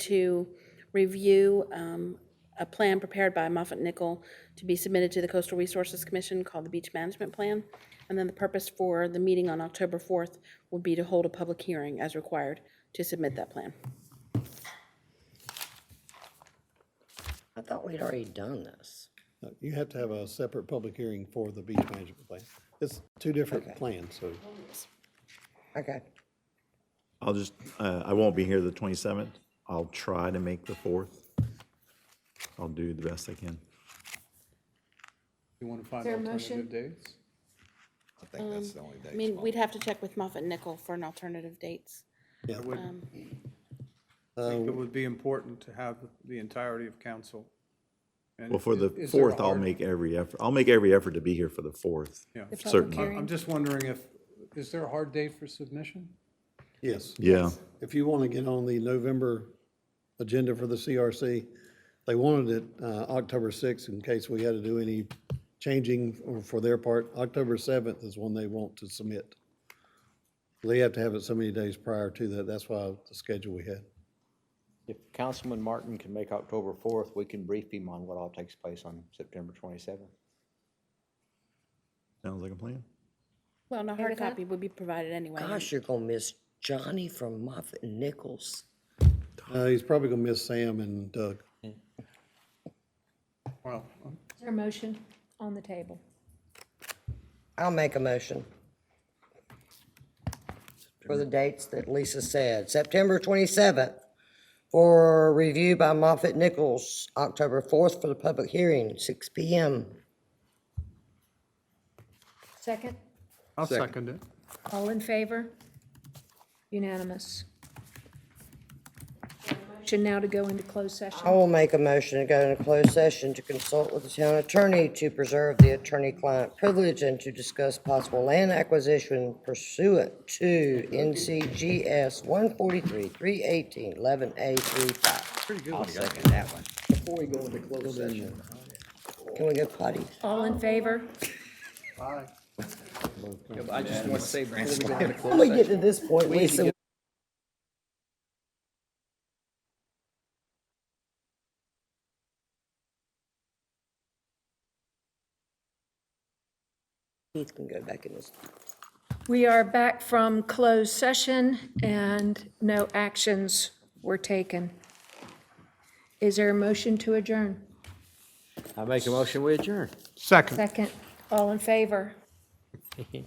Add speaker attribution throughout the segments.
Speaker 1: to review um, a plan prepared by Moffett Nickel to be submitted to the Coastal Resources Commission called the Beach Management Plan. And then the purpose for the meeting on October 4th would be to hold a public hearing as required to submit that plan.
Speaker 2: I thought we'd already done this.
Speaker 3: No, Uh, You have to have a separate public hearing for the beach management plan. It's two different plans, so
Speaker 2: Okay.
Speaker 4: I'll just, uh, I won't be here the 27th. I'll try to make the 4th. I'll do the best I can.
Speaker 5: You want to find
Speaker 6: there a
Speaker 5: alternative dates?
Speaker 7: I think that's the only
Speaker 1: I
Speaker 7: day.
Speaker 1: mean, we'd have to check with Moffett Nickel for an alternative dates.
Speaker 5: I would
Speaker 4: Uh,
Speaker 5: think it would be important to have the entirety of council. And
Speaker 4: Well, for the
Speaker 5: is there a
Speaker 4: 4th, I'll
Speaker 5: hard-
Speaker 4: make every effort, I'll make every effort to be here for the 4th.
Speaker 5: Yeah. The public
Speaker 4: Certainly.
Speaker 5: I'm just wondering if, is there a hard date for submission?
Speaker 3: yes.
Speaker 4: Yeah,
Speaker 3: If you want to get on the November agenda for the CRC, they wanted it uh, October 6th in case we had to do any changing or for their part. October 7th is when they want to submit. They have to have it so many days prior to that. That's why the schedule we had.
Speaker 8: If Councilman Martin can make October 4th, we can brief him on what all takes place on September 27th.
Speaker 4: sounds like a plan.
Speaker 1: Well, no hard copy would be provided anyway.
Speaker 2: Gosh, you're gonna miss Johnny from Moffett Nichols.
Speaker 3: Uh, He's probably going to miss Sam and Doug.
Speaker 5: Well, uh,
Speaker 6: Is there a motion on the table?
Speaker 2: I'll make a motion. For the dates that Lisa said, September twenty-seventh for review by Moffett Nichols, October fourth for the public hearing, six P M.
Speaker 6: Second?
Speaker 5: I'll second it.
Speaker 6: All in favor? Unanimous. Motion now to go into closed
Speaker 2: I
Speaker 6: session.
Speaker 2: will make a motion to go into closed session to consult with the town attorney to preserve the attorney-client privilege and to discuss possible land acquisition pursuant to NCGS one forty-three, three eighteen, eleven A three five.
Speaker 8: I'll second that one.
Speaker 2: Before we go into closed session. Can we go potty?
Speaker 6: All in favor?
Speaker 8: I just want to say,
Speaker 2: When we get to this point, Lisa, Keith can go back in this.
Speaker 6: We are back from closed session and no actions were taken. Is there a motion to adjourn?
Speaker 8: I make a motion, we adjourn.
Speaker 5: Second.
Speaker 6: Second, all in favor?
Speaker 2: You're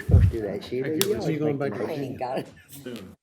Speaker 2: supposed to do that, Sheila.
Speaker 3: Are you going back to
Speaker 2: I ain't got it.